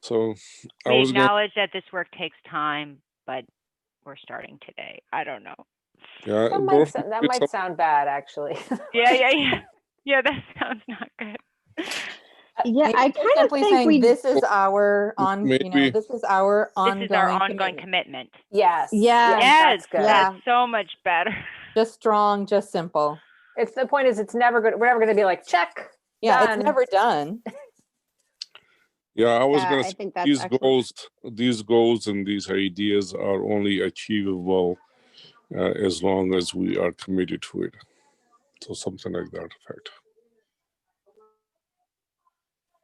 So I We was going, acknowledge that this work takes time, but we're starting today. I don't know. yeah, That don't might, sou- that forget some- might sound bad, actually. Yeah, yeah, yeah. Yeah, that sounds not good. Yeah, Maybe I kind just of simply think saying we, This is our M- on, you maybe- know, this is our This is our ongoing ongoing commitment. commitment. Yes. Yeah. Yes, That's good. that's so much better. Just strong, just simple. It's the point is it's never good. We're never going to be like, check. Yeah, Done. it's never done. yeah, I was yeah, going I to think that's these excellent. goals these goals and these ideas are only achievable uh, as long as we are committed to it so something like that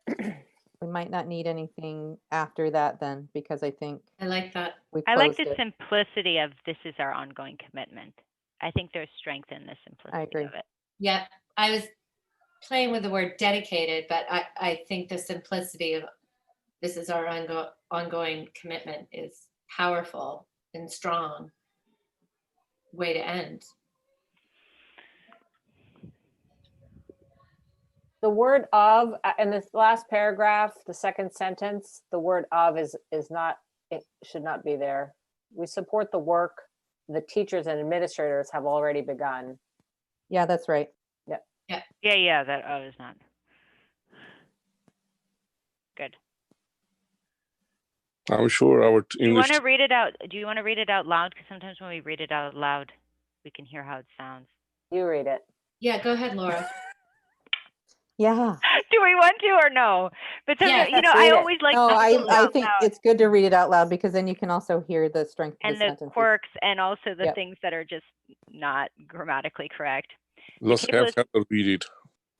effect We might not need anything after that then, because I think I like that. we I like closed the it. simplicity of this is our ongoing commitment. I think there's strength in the simplicity agree. of it. Yeah, I was playing with the word dedicated, but I, I think the simplicity of this is our ongo- ongoing commitment is powerful and strong way to end. The word of uh, in this last paragraph, the second sentence, the word of is is not it should not be there. We support the work the teachers and administrators have already begun. Yeah, that's right. Yeah, yeah, that oh, is not. Good. i'm sure our t- Do you english want to read it out? Do you want to read it out loud? Because sometimes when we read it out loud, we can hear how it sounds. You read it. Yeah, go ahead, Laura. Yeah. Do we want to or no? But sometimes, Yes, you let's know, I read it. always like No, to I, read it I out think loud it's good to read it out loud because then you can also hear the strength of the and the sentences. quirks and also the Yep. things that are just not grammatically correct. let's it have was- Heather read it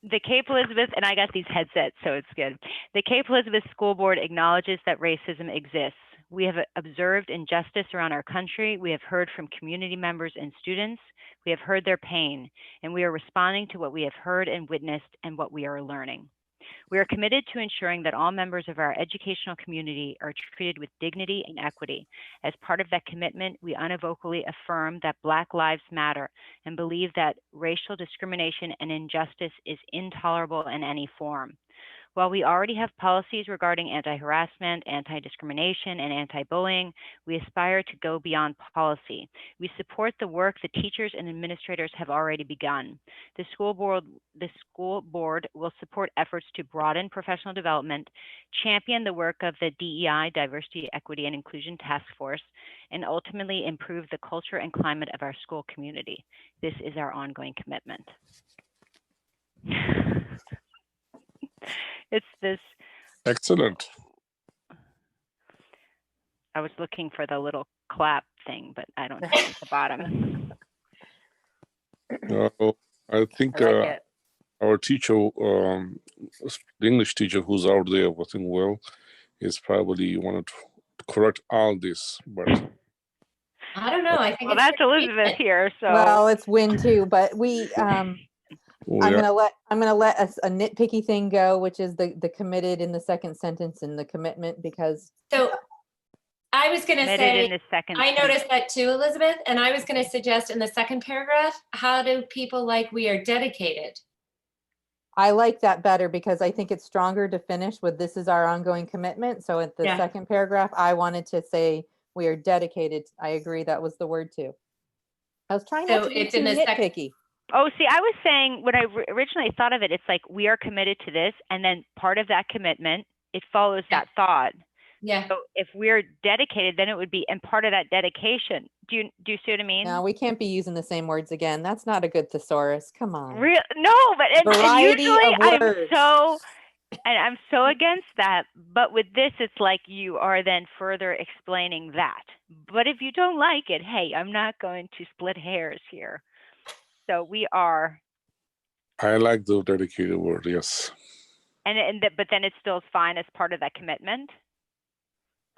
The Cape Elizabeth, and I got these headsets, so it's good. The Cape Elizabeth School Board acknowledges that racism exists. We have uh, observed injustice around our country. We have heard from community members and students. We have heard their pain, and we are responding to what we have heard and witnessed and what we are learning. We are committed to ensuring that all members of our educational community are treated with dignity and equity. As part of that commitment, we unevocally affirm that Black Lives Matter and believe that racial discrimination and injustice is intolerable in any form. While we already have policies regarding anti harassment, anti discrimination, and anti bullying, we aspire to go beyond policy. We support the work the teachers and administrators have already begun. The school board, the school board will support efforts to broaden professional development, champion the work of the DEI, Diversity, Equity, and Inclusion Task Force, and ultimately improve the culture and climate of our school community. This is our ongoing commitment. it's this, excellent I was looking for the little clap thing, but I don't see it at the bottom. uh, i think I like uh, it. our teacher um s- the english teacher who's out there working well is probably wanted to correct all this but I don't know. I think Well, it's that's pretty Elizabeth decent. here, so. Well, it's win too, but we, um, we I'm are- gonna let, I'm gonna let us a nitpicky thing go, which is the, the committed in the second sentence and the commitment because So I was going to Submitted in say, the second. I sentence. noticed that too, Elizabeth, and I was going to suggest in the second paragraph, how do people like we are dedicated? I like that better because I think it's stronger to finish with this is our ongoing commitment. So at the Yeah. second paragraph, I wanted to say we are dedicated. I agree. That was the word too. I was trying not So to be it's too in the sec- nitpicky. Oh, see, I was saying when I ri- originally thought of it, it's like we are committed to this, and then part of that commitment, it follows Yeah. that thought. Yeah, So if we're dedicated, then it would be, and part of that dedication. Do you do you see what I mean? No, we can't be using the same words again. That's not a good thesaurus. Come on. Real no, but and, and Variety of usually I'm words. so and I'm so against that. But with this, it's like you are then further explaining that. But if you don't like it, hey, I'm not going to split hairs here. So we are i like the dedicated word yes And, and th- but then it still is fine as part of that commitment?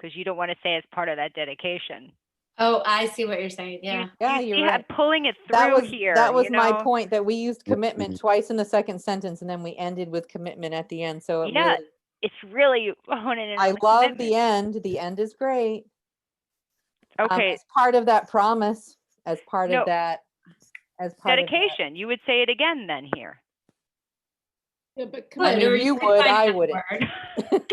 Because you don't want to say as part of that dedication. oh, I see what you're saying, You- yeah. Yeah, you you're see how- right. Pulling it That through was here. that was you my know? point that we used commitment Mhm. twice in the second sentence and then we ended with commitment at the end. So it Yeah, really- It's really honing in. I on love the commitment. end. The end is great. um, Okay, as part of that promise, as part No. of that, as part of that- dedication. You would say it again then here. Yeah, but I Good, mean, or you could would, find I another wouldn't. word.